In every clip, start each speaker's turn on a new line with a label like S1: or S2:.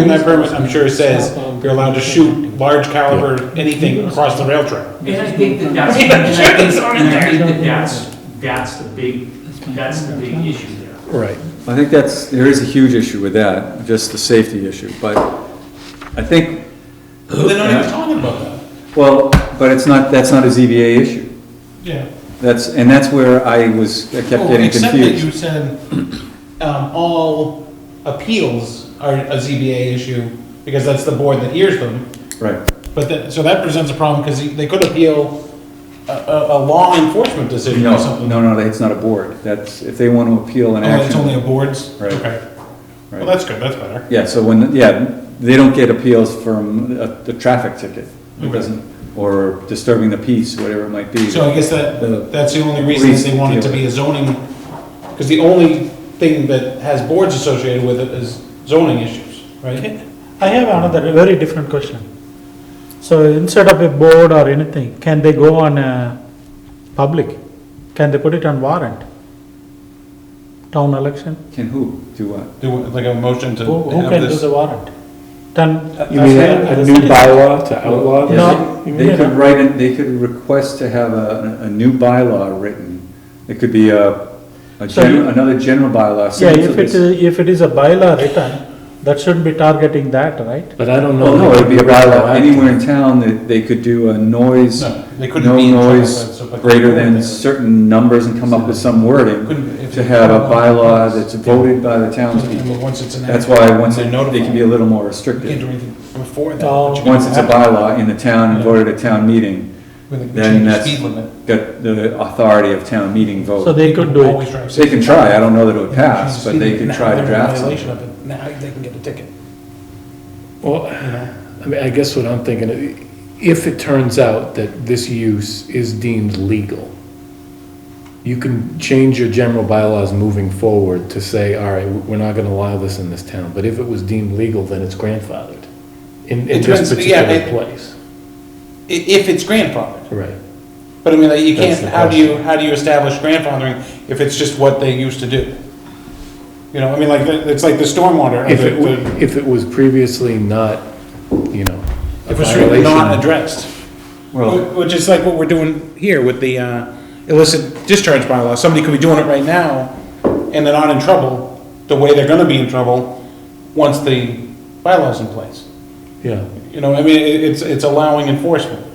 S1: In that permit, I'm sure it says you're allowed to shoot large caliber, anything across the rail trail.
S2: And I think that that's, and
S1: Yeah,
S2: I
S1: sure,
S2: think,
S1: it's on
S2: and I
S1: there.
S2: think that that's, that's the big, that's the big issue there.
S3: Right.
S4: I think that's, there is a huge issue with that, just the safety issue, but I think,
S1: They're not even talking about that.
S4: well, but it's not, that's not a ZBA issue.
S5: Yeah.
S4: That's, and that's where I was, I kept
S1: Well,
S4: getting
S1: Oh, Except that you
S4: confused.
S1: said, um, all appeals are a ZBA issue, because that's the board that hears them.
S4: Right,
S1: But that, so that presents a problem, because they could appeal a, a, a law enforcement decision or
S4: no,
S1: something.
S4: no, no, it's not a board, that's, if they want to appeal an
S1: Oh, that's only
S4: action.
S1: a board's?
S4: Right.
S1: Okay. Well,
S4: right.
S1: that's good, that's better.
S4: Yeah, so when, yeah, they don't get appeals from a, a traffic ticket, it
S1: Okay.
S4: doesn't, or disturbing the peace, whatever it might be.
S1: So I guess that,
S4: The-
S1: that's the only reason is they want it to be a zoning, because the only thing that has boards associated with it is zoning issues, right?
S5: I have another very different question. So instead of a board or anything, can they go on a public? Can they put it on warrant? Town election?
S4: Can who, do what?
S1: Do, like a motion to
S5: Who, who
S1: have
S5: can do
S1: this?
S5: the warrant? Then. uh,
S3: You mean a a new bylaw to outlaw this?
S5: No.
S4: They they could write, in- they could request to have a, a new bylaw written. It could be a, a
S5: So you-
S4: gen, another general bylaw.
S5: Yeah,
S4: similar to
S5: if it
S4: this.
S5: is, if it is a bylaw written, that shouldn't be targeting that, right?
S3: But I don't know.
S4: Well, no,
S3: that
S4: it'd be a
S3: retroactive.
S4: bylaw anywhere in town that they could do a noise,
S1: No, they couldn't
S4: no
S1: be in trouble, but-
S4: noise
S1: so- but-
S4: greater than certain numbers and come up with some wording
S1: Couldn't- if-
S4: to have a bylaw that's voted by the townspeople.
S1: But Once it's enacted.
S4: That's why once
S1: they're
S4: it, they can
S1: notified.
S4: be a little more
S1: You can't do
S4: restrictive.
S1: anything before that.
S5: Oh.
S1: but you can
S4: Once it's a
S1: have it
S4: bylaw in the town and voted at town meeting,
S1: with a
S4: then
S1: change
S4: that's
S1: Speed limit.
S4: got the authority of town meeting vote.
S5: So they could do it.
S1: Always drive
S4: They can try, I don't know that it would
S1: safety.
S4: pass, but
S1: Speed
S4: they
S1: limit.
S4: could
S1: Now
S4: try to
S1: they're in
S4: draft
S1: violation
S4: something.
S1: of it. Now they can get a ticket,
S3: Well,
S1: you know?
S3: I mean, I guess what I'm thinking, if it turns out that this use is deemed legal, you can change your general bylaws moving forward to say, all right, we're not gonna allow this in this town, but if it was deemed legal, then it's grandfathered in, in
S1: It
S3: this
S1: depends, yeah,
S3: particular
S1: it-
S3: place.
S1: I- if it's grandfathered.
S3: Right.
S1: But I mean, like, you can't,
S3: That's the
S1: how do you, how do you establish grandfathering if it's just what they used to do? You know, I mean, like, it's like the stormwater, or
S3: If
S1: the-
S3: it,
S1: the-
S3: wa- if it was previously not, you know, a
S1: if it's really not
S3: violation.
S1: addressed.
S4: Well,
S1: Wh- Which is like what we're doing here with the uh, illicit discharge bylaw. Somebody could be doing it right now, and they're not in trouble, the way they're gonna be in trouble, once the bylaw's in place.
S3: Yeah,
S1: You know, I mean, it- it's, it's allowing enforcement.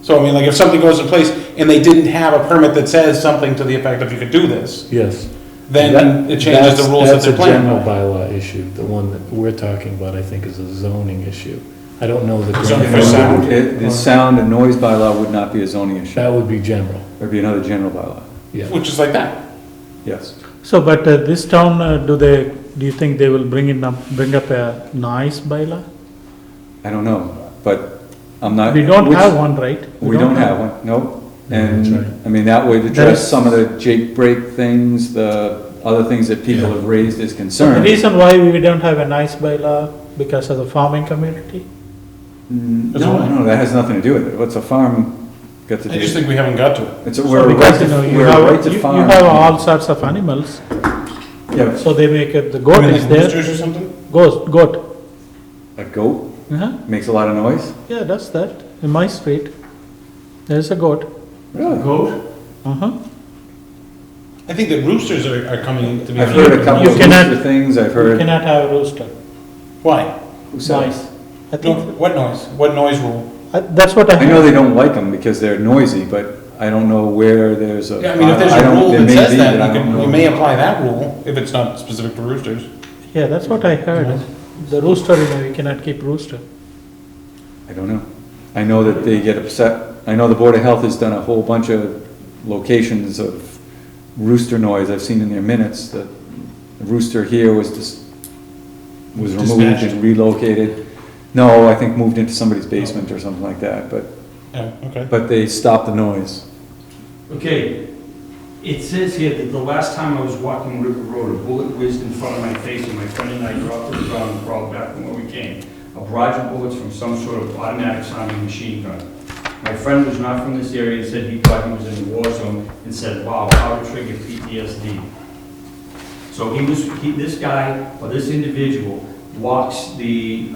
S1: So, I mean, like, if something goes in place and they didn't have a permit that says something to the effect of you could do this,
S3: yes.
S1: then
S3: That-
S1: it changes the
S3: that's-
S1: rules that they're playing
S3: That's a
S1: by.
S3: general bylaw issue, the one that we're talking about, I think, is a zoning issue. I don't know the.
S1: Zoning
S4: if
S1: for
S4: it-
S1: sound.
S4: it- The sound and noise bylaw would not be a zoning issue,
S3: That would be general,
S4: it'd be another general bylaw,
S3: yeah.
S1: Which is like that.
S4: yes.
S5: So, but uh, this town, uh, do they, do you think they will bring in, up- bring up a noise bylaw?
S4: I don't know, but I'm not.
S5: We don't
S4: which-
S5: have one, right?
S4: We don't have one, nope.
S3: that's right.
S4: And, I mean, that would
S5: is-
S4: address some of the Jake break things, the other things that people have raised as
S5: The
S4: concerns.
S5: reason why we don't have a nice bylaw, because of the farming community?
S4: Mm,
S1: That's
S4: No,
S1: all.
S4: no, that has nothing to do with it, what's a farm got to
S1: I just
S4: do?
S1: think we haven't got to it.
S4: It's, a-
S5: So
S4: we're a right
S5: because, you
S4: to,
S5: know, you
S4: we're a
S5: have-
S4: right
S5: you-
S4: to
S5: You
S4: farm.
S5: have all sorts of animals,
S4: Yeah,
S5: so they make, it- the
S1: I
S5: goat
S1: mean,
S5: is
S1: like
S5: there,
S1: roosters or something?
S5: goat, goat.
S4: a goat
S5: Uh-huh.
S4: makes a lot of noise,
S5: Yeah, does that, in my street, there's a goat.
S4: really?
S1: Goat?
S5: Uh-huh.
S1: I think that roosters are, are coming to be.
S4: I've heard a couple
S5: You
S4: of
S5: cannot-
S4: rooster things, I've
S5: You
S4: heard.
S5: cannot have a rooster,
S1: Why?
S4: Who said it?
S5: noise. I
S1: No,
S5: think,
S1: what noise? What noise rule?
S5: I- that's what I
S4: I know
S5: heard.
S4: they don't like them because they're noisy, but I don't know where there's a.
S1: Yeah, I mean, if there's a
S4: don't-
S1: rule
S4: there
S1: that
S4: may
S1: says
S4: be, but I
S1: that, you
S4: don't
S1: can,
S4: know.
S1: you may apply that rule, if it's not specific to roosters.
S5: Yeah, that's what I heard. The rooster, you know, you cannot keep rooster.
S4: I don't know. I know that they get upset. I know the Board of Health has done a whole bunch of locations of rooster noise. I've seen in their minutes that the rooster here was just, was removed
S1: Dispatched.
S4: and relocated. No, I think moved into somebody's basement or something like that, but,
S1: Yeah, okay.
S4: but they stopped the noise.
S6: Okay, it says here that the last time I was walking River Road, a bullet whizzed in front of my face and my friend and I dropped to the ground and crawled back from where we came. A barrage of bullets from some sort of automatic sounding machine gun. My friend was not from this area and said he thought he was in a war zone and said, wow, how to trigger PTSD. So he was, he, this guy, or this individual, walks the